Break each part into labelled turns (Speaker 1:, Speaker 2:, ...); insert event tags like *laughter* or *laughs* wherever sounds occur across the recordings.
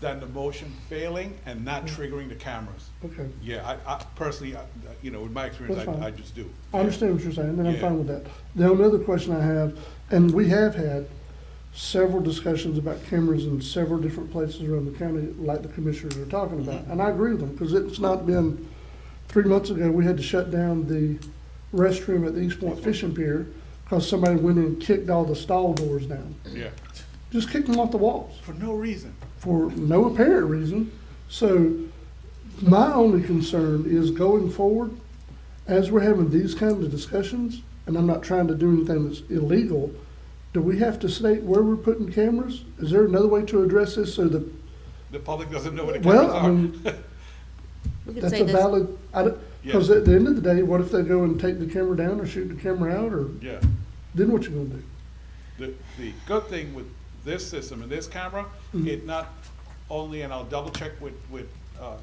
Speaker 1: than the motion failing and not triggering the cameras.
Speaker 2: Okay.
Speaker 1: Yeah, I, I personally, I- you know, with my experience,
Speaker 2: That's fine.
Speaker 1: I, I just do.
Speaker 2: I understand what you're saying, and I'm
Speaker 1: Yeah.
Speaker 2: fine with that. The only other question I have, and we have had several discussions about cameras in several different places around the county, like the commissioners are talking about, and I agree with them, because it's not been, three months ago, we had to shut down the restroom at the East Point Fishing Pier, because somebody went in and kicked all the stall doors down.
Speaker 1: Yeah,
Speaker 2: Just kicked them off the walls
Speaker 1: for no reason.
Speaker 2: for no apparent reason. So my only concern is going forward, as we're having these kinds of discussions, and I'm not trying to do anything that's illegal, do we have to state where we're putting cameras? Is there another way to address this so that,
Speaker 1: The public doesn't know what the
Speaker 2: Well,
Speaker 1: cameras
Speaker 2: I
Speaker 1: are.
Speaker 3: We could
Speaker 2: that's
Speaker 3: say
Speaker 2: a
Speaker 3: this,
Speaker 2: valid, I don't, because
Speaker 1: Yeah.
Speaker 2: at the end of the day, what if they go and take the camera down or shoot the camera out or,
Speaker 1: *laughs* Yeah.
Speaker 2: then what you gonna do?
Speaker 1: The, the good thing with this system and this camera, it not only, and I'll double check with, with, uh,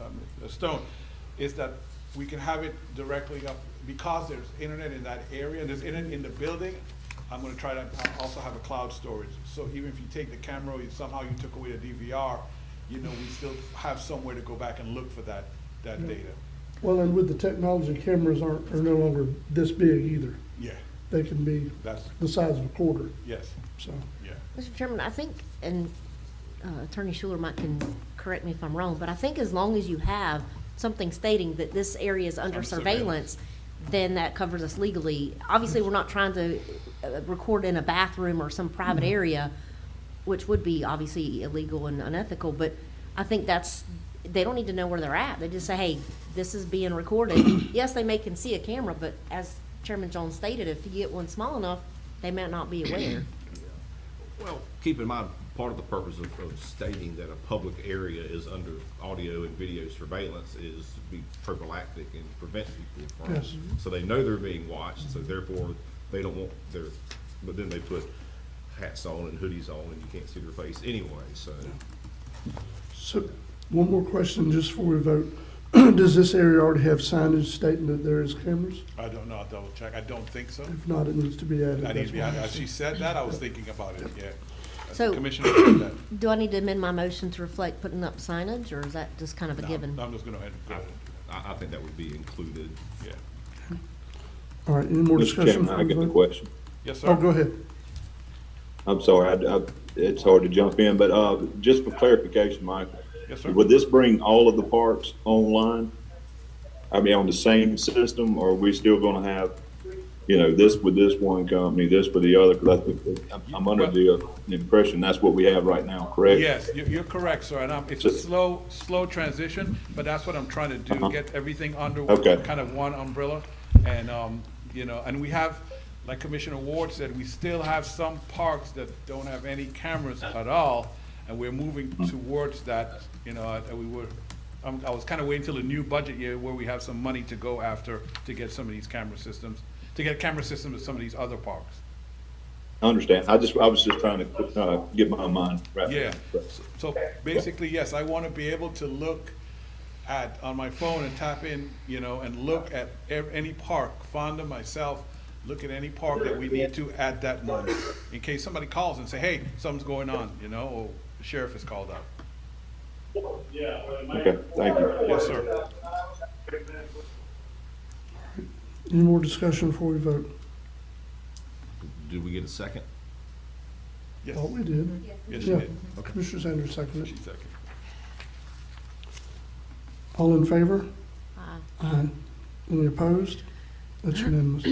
Speaker 1: um, Stone, is that we can have it directly up, because there's internet in that area, there's internet in the building, I'm gonna try to uh, also have a cloud storage, so even if you take the camera, you- somehow you took away the DVR, you know, we still have somewhere to go back and look for that, that data.
Speaker 2: Well, and with the technology, cameras aren't, are no longer this big either.
Speaker 1: Yeah,
Speaker 2: They can be
Speaker 1: that's,
Speaker 2: the size of a quarter,
Speaker 1: yes,
Speaker 2: so.
Speaker 1: yeah.
Speaker 3: Mr. Chairman, I think, and uh, Attorney Schuler might can correct me if I'm wrong, but I think as long as you have something stating that this area is under
Speaker 1: Under surveillance.
Speaker 3: surveillance, then that covers us legally. Obviously, we're not trying to uh, record in a bathroom or some private area, which would be obviously illegal and unethical, but I think that's, they don't need to know where they're at. They just say, hey, this is being recorded. Yes, they may can see a camera, but as Chairman Jones stated, if you get one small enough, they might not be aware.
Speaker 4: Well, keep in mind, part of the purpose of, of stating that a public area is under audio and video surveillance is to be prophylactic and prevent people from.
Speaker 2: Yes.
Speaker 4: So they know they're being watched, so therefore, they don't want their, but then they put hats on and hoodies on and you can't see their face anyway, so.
Speaker 2: So, one more question just before we vote. *clears throat* Does this area already have signage stating that there is cameras?
Speaker 1: I don't know, I'll double check, I don't think so.
Speaker 2: If not, it needs to be added.
Speaker 1: I need to be,
Speaker 2: That's
Speaker 1: honest, as she said that, I was thinking about it, yeah.
Speaker 3: So-
Speaker 1: Commissioner said that.
Speaker 3: Do I need to amend my motion to reflect putting up signage, or is that just kind of a
Speaker 1: No,
Speaker 3: *coughs* given?
Speaker 1: I'm just gonna end
Speaker 4: I,
Speaker 1: it,
Speaker 4: I think that would be included.
Speaker 1: yeah.
Speaker 2: why. All right, any more
Speaker 5: Mr.
Speaker 2: discussion?
Speaker 5: Chairman,
Speaker 2: before
Speaker 5: I
Speaker 2: we
Speaker 5: got a
Speaker 2: vote?
Speaker 5: question.
Speaker 1: Yes,
Speaker 2: Oh, go
Speaker 1: sir.
Speaker 2: ahead.
Speaker 5: I'm sorry, I, I, it's hard to jump in, but, uh, just for clarification, Michael.
Speaker 1: Yes, sir.
Speaker 5: Would this bring all of the parks online? I mean, on the same system, or are we still gonna have, you know, this with this one company, this with the other? Cause I think, I'm, I'm under the impression that's what we have right now, correct?
Speaker 1: Yes, you- you're correct, sir, and I'm- it's a slow, slow transition, but that's what I'm trying to do,
Speaker 5: Uh-huh.
Speaker 1: get everything under
Speaker 5: Okay.
Speaker 1: kind of one umbrella. And, um, you know, and we have, like Commissioner Ward said, we still have some parks that don't have any cameras at all, and we're moving
Speaker 5: Mm-hmm.
Speaker 1: towards that, you know, and we were, I'm- I was kind of waiting till the new budget year where we have some money to go after to get some of these camera systems, to get camera systems at some of these other parks.
Speaker 5: I understand. I just, I was just trying to, uh, get my mind right.
Speaker 1: Yeah, so- so basically, yes, I want to be able to look at, on my phone and tap in, you know, and look at ev- any park, Fonda, myself, look at any park that we need to at that moment, in case somebody calls and say, hey, something's going on, you know, or the sheriff is called out.
Speaker 5: Okay, thank you.
Speaker 1: Yes, sir.
Speaker 2: Any more discussion before we vote?
Speaker 4: Did we get a second?
Speaker 1: Yes,
Speaker 2: Thought we did.
Speaker 1: yes, she
Speaker 2: Yeah,
Speaker 1: did.
Speaker 2: Commissioner Sanders seconded
Speaker 1: She
Speaker 2: it.
Speaker 1: seconded.
Speaker 2: All in favor?
Speaker 3: Aye.
Speaker 2: Aye. Any opposed? That's unanimous.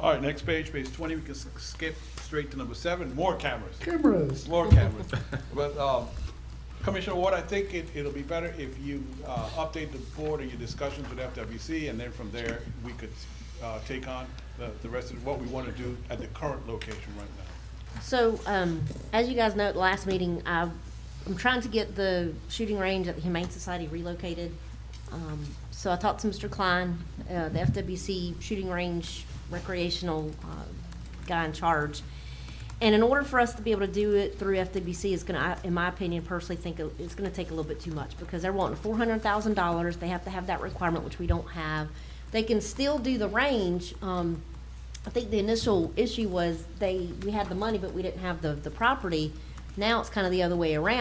Speaker 1: All right, next page, page twenty, we can s- skip straight to number seven, more cameras.
Speaker 2: Cameras.
Speaker 1: More cameras. But, um, Commissioner Ward, I think it, it'll be better if you, uh, update the board and your discussions with FWC, and then from there, we could, uh, take on the, the rest of what we wanna do at the current location right now.
Speaker 3: So, um, as you guys know, at the last meeting, I, I'm trying to get the shooting range at the Humane Society relocated. Um, so I talked to Mr. Klein, uh, the FWC shooting range recreational, uh, guy in charge. And in order for us to be able to do it through FWC is gonna, I- in my opinion, personally think it- it's gonna take a little bit too much because they're wanting four hundred thousand dollars. They have to have that requirement, which we don't have. They can still do the range. Um, I think the initial issue was they, we had the money, but we didn't have the, the property. Now it's kind of the other way around.